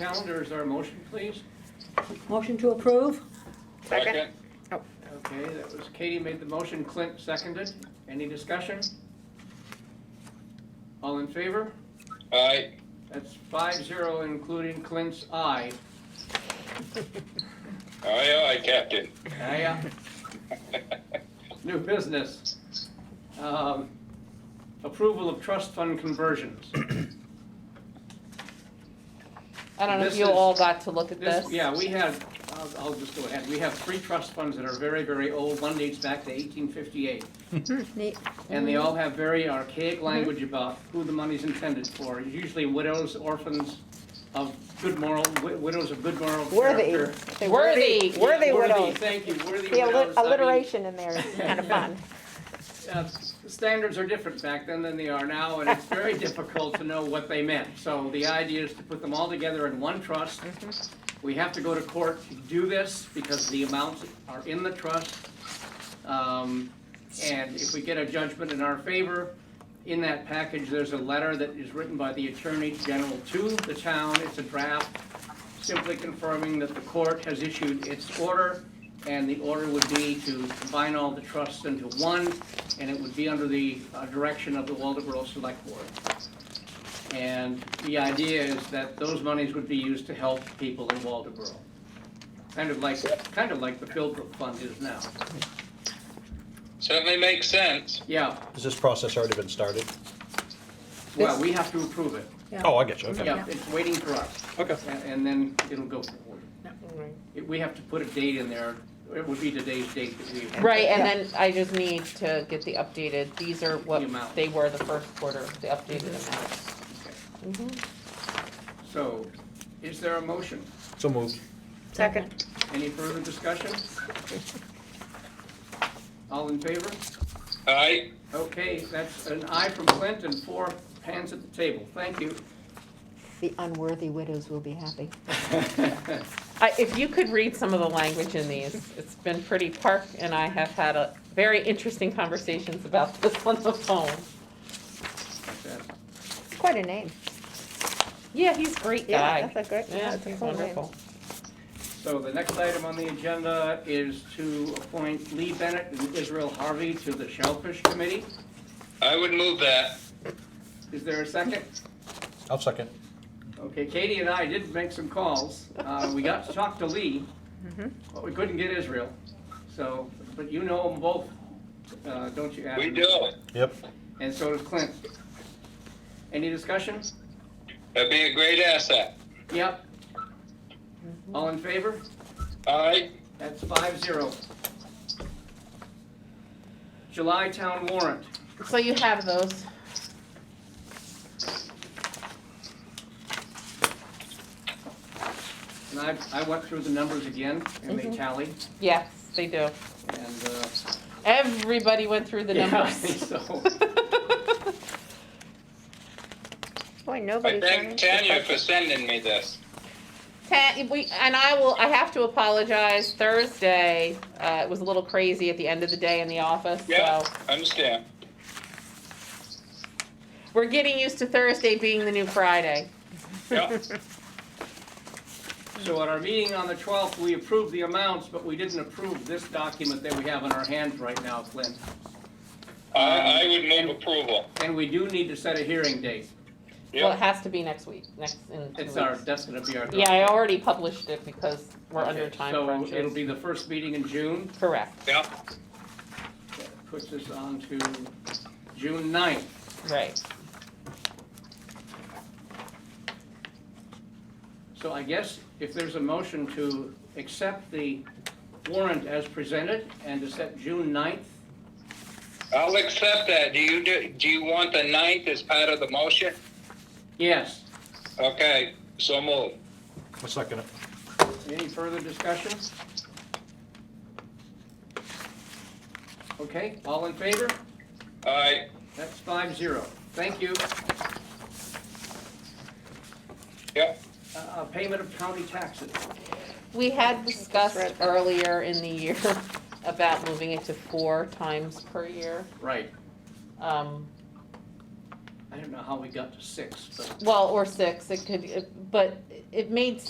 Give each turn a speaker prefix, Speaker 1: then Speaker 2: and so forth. Speaker 1: Calendar is our motion, please.
Speaker 2: Motion to approve?
Speaker 3: Second.
Speaker 1: Okay, that was Katie made the motion, Clint seconded. Any discussion? All in favor?
Speaker 3: Aye.
Speaker 1: That's five zero, including Clint's aye.
Speaker 3: Aye, aye, Captain.
Speaker 1: Aye, aye. New business. Um, Approval of trust fund conversions.
Speaker 4: I don't know if
Speaker 1: This
Speaker 4: you
Speaker 1: is-
Speaker 4: all got to look at
Speaker 1: This,
Speaker 4: this.
Speaker 1: yeah, we have, I'll, I'll just go ahead. We have three trust funds that are very, very old. One dates back to eighteen fifty-eight.
Speaker 2: Neat.
Speaker 1: And
Speaker 5: Mm-hmm.
Speaker 1: they all have very archaic language about who the money's intended for, usually widows, orphans of good moral, wi- widows of good moral
Speaker 5: Worthy.
Speaker 1: character.
Speaker 5: Say
Speaker 4: Worthy.
Speaker 1: Yeah,
Speaker 5: Worthy widows.
Speaker 1: Thank you, worthy
Speaker 5: The alli-
Speaker 1: widows. I mean,
Speaker 5: alliteration in there is kind of fun.
Speaker 1: uh, Standards are different back then than they are now, and it's very difficult to know what they meant. So the idea is to put them all together in one trust. We have to go to court to do this because the amounts are in the trust. Um, And if we get a judgment in our favor, in that package, there's a letter that is written by the Attorney General to the town. It's a draft simply confirming that the court has issued its order, and the order would be to combine all the trusts into one, and it would be under the uh, direction of the Waldeboro Select Board. And the idea is that those monies would be used to help people in Waldeboro. Kind of like, kind of like the Philbrook Fund is now.
Speaker 3: Certainly makes sense.
Speaker 1: Yeah,
Speaker 6: Has this process already been started?
Speaker 1: well, we have to approve it.
Speaker 6: Oh, I get you, okay.
Speaker 1: Yeah, it's waiting for us.
Speaker 6: Okay.
Speaker 1: And- And then it'll go forward. It- We have to put a date in there. It would be today's date that we.
Speaker 4: Right, and then I just need to get the updated, these are what
Speaker 1: The amount.
Speaker 4: they were the first quarter, the updated
Speaker 5: Mhm.
Speaker 4: amounts.
Speaker 1: So, is there a motion?
Speaker 6: So moved.
Speaker 5: Second.
Speaker 1: Any further discussion? All in favor?
Speaker 3: Aye.
Speaker 1: Okay, that's an aye from Clint and four hands at the table. Thank you.
Speaker 5: The unworthy widows will be happy.
Speaker 4: I, if you could read some of the language in these, it's been pretty, Park and I have had a very interesting conversations about this on the phone.
Speaker 5: It's quite a name.
Speaker 4: Yeah, he's a great guy.
Speaker 5: Yeah, that's a good,
Speaker 4: Yeah,
Speaker 5: that's a
Speaker 4: he's
Speaker 5: cool name.
Speaker 4: wonderful.
Speaker 1: So the next item on the agenda is to appoint Lee Bennett and Israel Harvey to the Shellfish Committee.
Speaker 3: I would move that.
Speaker 1: Is there a second?
Speaker 6: I'll second.
Speaker 1: Okay, Katie and I did make some calls. Uh, we got to talk to Lee,
Speaker 4: Mm-hmm.
Speaker 1: but we couldn't get Israel. So, but you know them both, uh, don't you, Adam?
Speaker 3: We do.
Speaker 6: Yep.
Speaker 1: And so does Clint. Any discussion?
Speaker 3: That'd be a great asset.
Speaker 1: Yep.
Speaker 4: Mm-hmm.
Speaker 1: All in favor?
Speaker 3: Aye.
Speaker 1: That's five zero. July town warrant.
Speaker 4: So you have those.
Speaker 1: And I, I went through the numbers again and
Speaker 4: Mm-hmm.
Speaker 1: they tally
Speaker 4: Yes, they do.
Speaker 1: and, uh.
Speaker 4: Everybody went through the
Speaker 1: yeah,
Speaker 4: numbers.
Speaker 1: So,
Speaker 5: Boy,
Speaker 3: I
Speaker 5: nobody's
Speaker 3: thank
Speaker 5: learning.
Speaker 3: Tanya for sending me this.
Speaker 4: Pat, we, and I will, I have to apologize, Thursday, uh, it was a little crazy at the end of the day in the office,
Speaker 3: Yeah,
Speaker 4: so.
Speaker 3: understand.
Speaker 4: We're getting used to Thursday being the new Friday.
Speaker 3: Yeah.
Speaker 1: so at our meeting on the twelfth, we approved the amounts, but we didn't approve this document that we have in our hands right now, Clint.
Speaker 3: I, I would move approval.
Speaker 1: And we do need to set a hearing date.
Speaker 4: Well, it
Speaker 3: Yeah.
Speaker 4: has to be next week, next, in two
Speaker 1: It's our,
Speaker 4: weeks.
Speaker 1: that's gonna be our.
Speaker 4: Yeah, I already published it because we're under
Speaker 1: Okay,
Speaker 4: time
Speaker 1: So it'll
Speaker 4: crunches.
Speaker 1: be the first meeting in June.
Speaker 4: Correct,
Speaker 3: Yeah.
Speaker 1: That Puts us on to June 9th.
Speaker 4: right.
Speaker 1: So I guess if there's a motion to accept the warrant as presented and to set June 9th,
Speaker 3: I'll accept that. Do you, do, do you want the ninth as part of the motion?
Speaker 1: yes.
Speaker 3: Okay, so move.
Speaker 6: I'll second it.
Speaker 1: Any further discussion? Okay, all in favor?
Speaker 3: Aye.
Speaker 1: That's five zero. Thank you.
Speaker 3: Yep.
Speaker 1: Uh, Payment of county taxes.
Speaker 4: We had discussed
Speaker 5: read that.
Speaker 4: earlier in the year about moving it to four times per year.
Speaker 1: Right.
Speaker 4: Um,
Speaker 1: I I don't know how we got to six, but.
Speaker 4: Well, or six, it could, it- but it made